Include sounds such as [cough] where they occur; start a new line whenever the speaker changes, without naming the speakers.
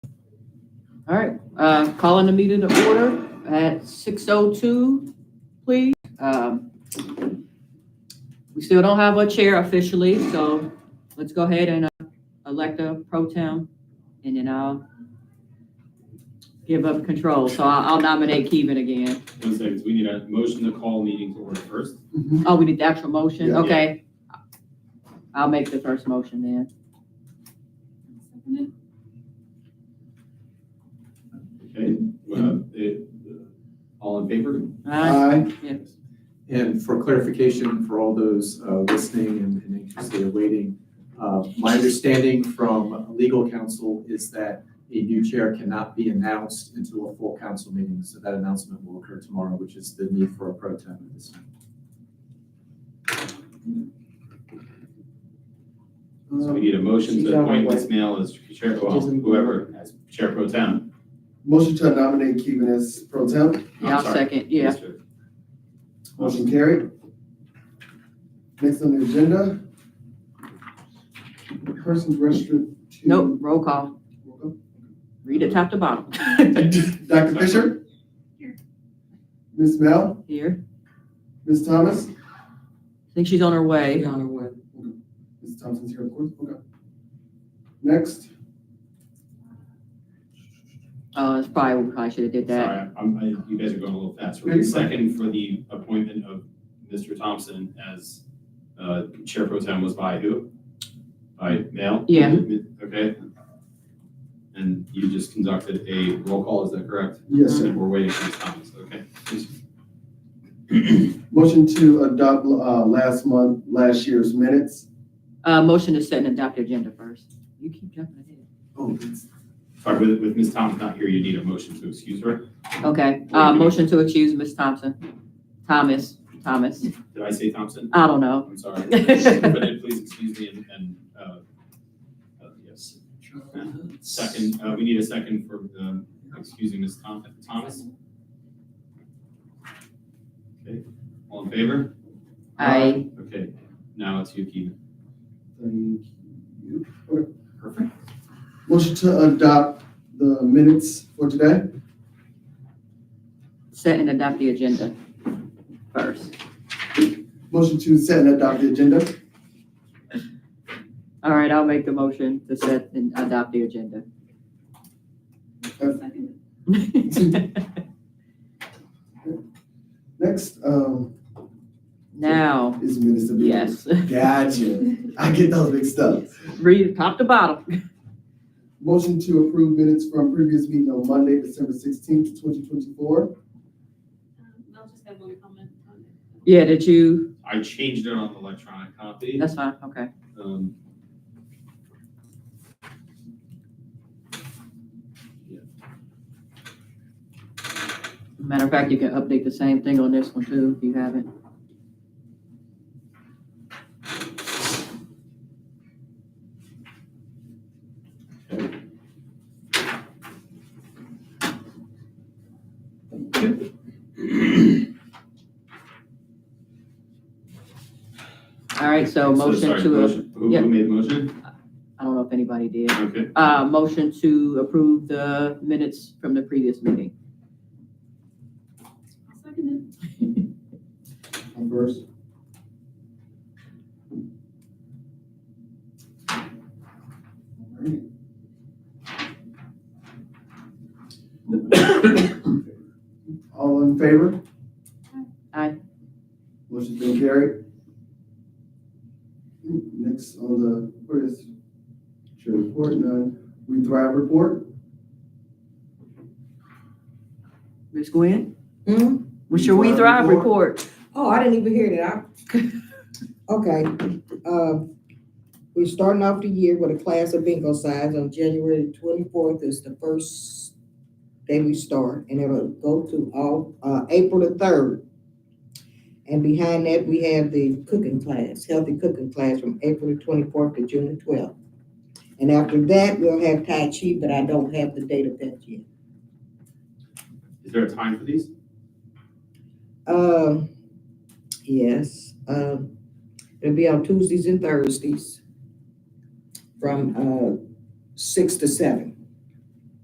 All right, uh, calling the meeting to order at six oh two, please. Um, We still don't have a chair officially, so let's go ahead and uh, elect a pro tem, and then I'll give up control. So I- I'll nominate Kevin again.
One second, we need a motion to call meeting to order first.
Oh, we need the actual motion,
Yeah.
okay. I'll make the first motion then.
Okay, uh, it- all in favor?
All
Uh,
right, Yeah.
And for clarification, for all those uh, listening and and anxiously awaiting, uh, my understanding from legal counsel is that a new chair cannot be announced until a full council meeting. So that announcement will occur tomorrow, which is the need for a pro tem at this time.
So we need a motion
She's
to
on
appoint
her way.
Ms. Mail as chair, well,
She's in-
whoever, as chair pro tem.
Motion to nominate Keven as pro temp,
I'm
Yeah, I'll
sorry,
second, yeah. [laughs]
Mr.
motion carried. Next on the agenda. Persons registered to.
Nope, roll call. Read it top to bottom.
Dr. Fisher?
Here.
Ms. Mel,
Here,
Ms. Thomas?
I think she's on her way.
on her way. Ms. Thompson's here, of course, okay. Next,
Uh, it's probably, we probably should have did that.
Sorry, I'm, I, you guys are going a little fast.
No, you're fine.
Second for the appointment of Mr. Thompson as, uh, chair pro tem was by who? By Mail?
Yeah.
Okay. And you just conducted a roll call, is that correct?
yes, sir.
And we're waiting for Ms. Thomas, okay?
Motion to adopt, uh, last month, last year's minutes.
Uh, motion to set and adopt the agenda first. You keep jumping ahead.
Oh, that's-
Sorry, with, with Ms. Thomas not here, you need a motion to excuse her.
Okay, uh, motion to accuse Ms. Thompson. Thomas, Thomas,
Did I say Thompson?
I don't know.
I'm sorry. But then please excuse me and, and, uh, uh, yes. Second, uh, we need a second for, um, excusing Ms. Thom- Thomas. Okay, all in favor?
I,
Okay, now it's you, Keegan.
Thank you.
Perfect.
Motion to adopt the minutes for today.
set and adopt the agenda first.
Motion to set and adopt the agenda.
All right, I'll make the motion to set and adopt the agenda. [laughs]
Next, um,
Now,
is minutes of. the-
yes,
Gotcha. I get those mixed up.
read it top to bottom.
Motion to approve minutes from previous meeting on Monday, December sixteenth, twenty twenty-four.
Um, I'll just have one comment on it.
Yeah, did you,
I changed it on the electronic copy.
that's fine, okay.
Um, yeah,
Matter of fact, you can update the same thing on this one too, if you haven't. All right, so
So,
motion
sorry,
to,
motion. Who,
yeah.
who made the motion?
I don't know if anybody did.
Okay,
Uh, motion to approve the minutes from the previous meeting.
I'll second
I'm first. All in favor?
Aye.
Motion's been carried. Next on the, where is, chair report, none, we thrive report,
Ms. Gwen?
Hmm?
What's your We Thrive report?
Oh, I didn't even hear that. I- Okay, uh, we're starting off the year with a class of bingo signs on January twenty-fourth is the first day we start, and it'll go to all, uh, April the third. And behind that, we have the cooking class, healthy cooking class from April the twenty-fourth to June the twelfth. And after that, we'll have Tai Chi, but I don't have the date of that yet.
is there a time for these?
Um, yes, um, it'll be on Tuesdays and Thursdays from, uh, six to seven.